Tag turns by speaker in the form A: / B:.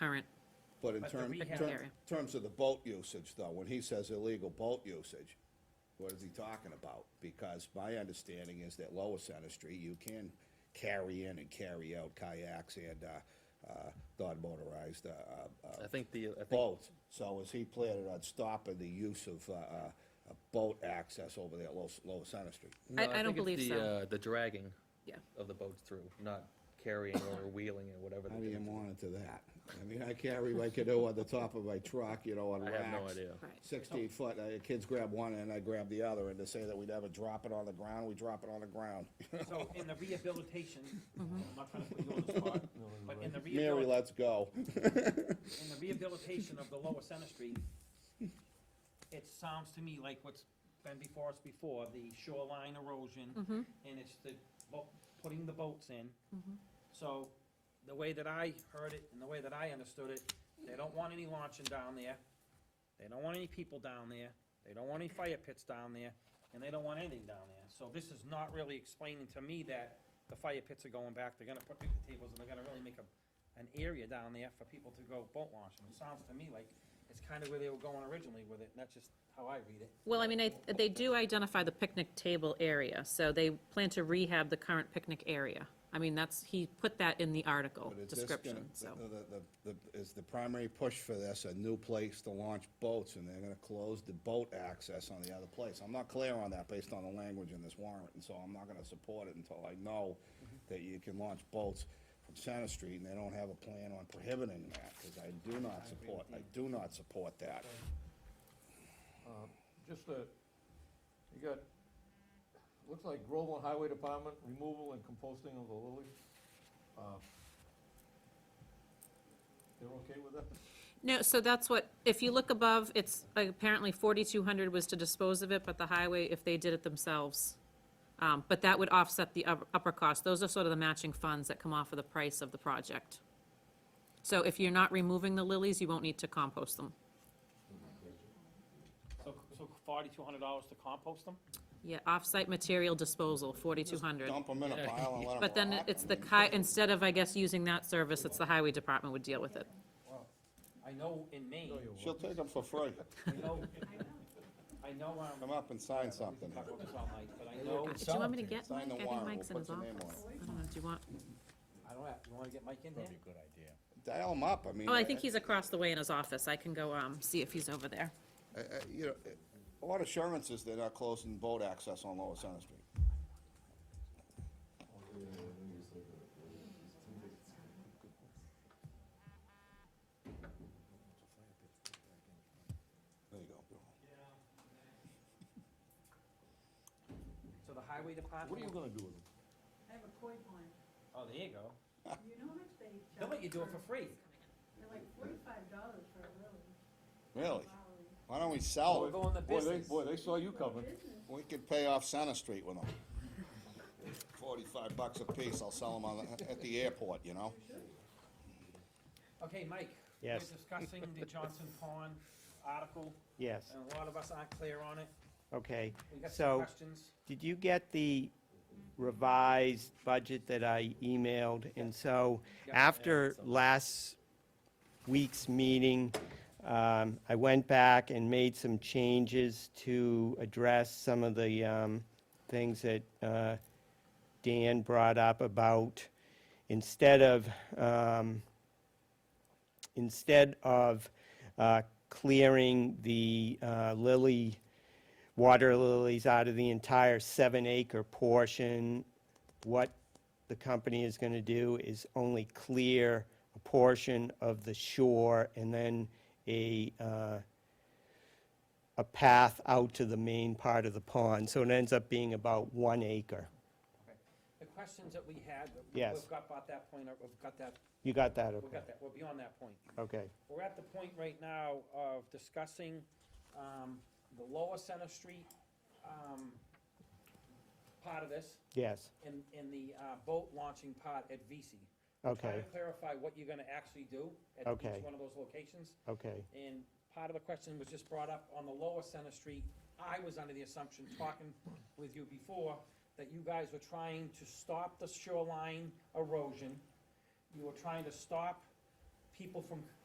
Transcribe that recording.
A: But in
B: But the
A: term,
B: rehab-
A: term-
C: Area.
A: terms of the boat usage though, when he says illegal boat usage, what is he talking about? Because my understanding is that Lower Center Street, you can carry in and carry out kayaks and, uh, uh, non-motorized, uh, uh, uh,
D: I think the, I think,
A: boat. So is he planning on stopping the use of, uh, uh, uh, boat access over there at Lower, Lower Center Street?
D: no,
C: I- I don't
D: think
C: believe
D: it's the,
C: so.
D: uh, The dragging
C: Yeah.
D: of the boats through, not carrying or wheeling or whatever.
A: How
D: they're
A: do you
D: doing.
A: monitor that? I mean, I carry my canoe on the top of my truck, you know, on
D: I
A: racks.
D: have no idea.
C: Right.
A: Sixteen foot, uh, kids grab one and I grab the other, and to say that we never drop it on the ground, we drop it on the ground.
B: So in the rehabilitation, I'm not trying to put you on the spot, but in the
A: Mary,
B: rehabilitation,
A: let's go.
B: in the rehabilitation of the lower Center Street, it sounds to me like what's been before us before, the shoreline erosion,
C: Mm-hmm.
B: and it's the, bo- putting the boats in. So the way that I heard it and the way that I understood it, they don't want any launching down there. They don't want any people down there. They don't want any fire pits down there, and they don't want anything down there. So this is not really explaining to me that the fire pits are going back, they're gonna put picnic tables, and they're gonna really make a, an area down there for people to go boat launching. It sounds to me like it's kinda where they were going originally with it, and that's just how I read it.
C: Well, I mean, I, they do identify the picnic table area, so they plan to rehab the current picnic area. I mean, that's, he put that in the article
A: But is this gonna- uh,
C: description, so.
A: the- the- the- the- Is the primary push for this a new place to launch boats, and they're gonna close the boat access on the other place? I'm not clear on that based on the language in this warrant, and so I'm not gonna support it until I know that you can launch boats from Center Street, and they don't have a plan on prohibiting that, because I do not support, I do not support that.
E: Just a, you got, looks like Groveland Highway Department, removal and composting of the lilies. Uh, They're okay with that?
C: No, so that's what, if you look above, it's, like, apparently 4,200 was to dispose of it, but the highway, if they did it themselves. Um, But that would offset the up- upper cost. Those are sort of the matching funds that come off of the price of the project. So if you're not removing the lilies, you won't need to compost them.
B: So, so forty-two hundred dollars to compost them?
C: Yeah, off-site material disposal, 4,200.
A: Dump them in a pile and let them
C: But then
A: rot.
C: it's the ki, instead of, I guess, using that service, it's the highway department would deal with it.
B: I know in Maine,
A: She'll take them for free.
B: I know, I know, um,
A: Come up and sign
B: we can
A: something.
B: talk about this all night, but I know,
C: Uh, Do you want me to get Mike?
A: Sign the
C: I think
A: warrant,
C: Mike's in
A: we'll
C: his
A: put your name
C: office.
A: on
C: I don't know, do you want?
B: I don't have, you wanna get Mike in there?
F: good idea.
A: Dial them up, I mean.
C: Oh, I think he's across the way in his office. I can go, um, see if he's over there.
A: uh, uh, You know, uh, what assurance is they're not closing boat access on Lower Center Street? There you go, Bill.
B: So the highway department?
E: What are you gonna do with them?
G: I have a koi pond.
B: Oh, there you go.
G: You know how much they charge?
B: They'll let you do it for free.
G: They're like forty-five dollars for a lily.
A: Really?
G: Hourly.
A: Why don't we sell
B: We're
A: them?
B: going the
E: Boy, they,
B: business.
E: boy, they saw you coming.
G: Business,
A: We could pay off Center Street with them. Forty-five bucks a piece, I'll sell them on, the- at the airport, you know?
B: Okay, Mike?
F: Yes.
B: We're discussing the Johnson Pond article,
F: Yes,
B: and a lot of us aren't clear on it.
F: okay.
B: We got some
F: So,
B: questions.
F: did you get the revised budget that I emailed? And so,
B: Yeah.
F: after last week's meeting, um, I went back and made some changes to address some of the um, things that uh, Dan brought up about, instead of, um, instead of uh, clearing the uh, lily, water lilies out of the entire seven-acre portion, what the company is going to do is only clear a portion of the shore and then a, uh, a path out to the main part of the pond. So it ends up being about one acre.
B: The questions that we had,
F: Yes.
B: we've got about that point, uh, we've got that,
F: You got that,
B: we've
F: okay?
B: got that, we're beyond that point.
F: Okay,
B: We're at the point right now of discussing, um, the lower Center Street, um, part of this,
F: yes,
B: and, and the, uh, boat launching part at VC. Try
F: okay,
B: to clarify what you're gonna actually do at
F: Okay.
B: each one of those locations.
F: okay,
B: And part of the question was just brought up on the lower Center Street. I was under the assumption, talking with you before, that you guys were trying to stop the shoreline erosion. You were trying to stop people from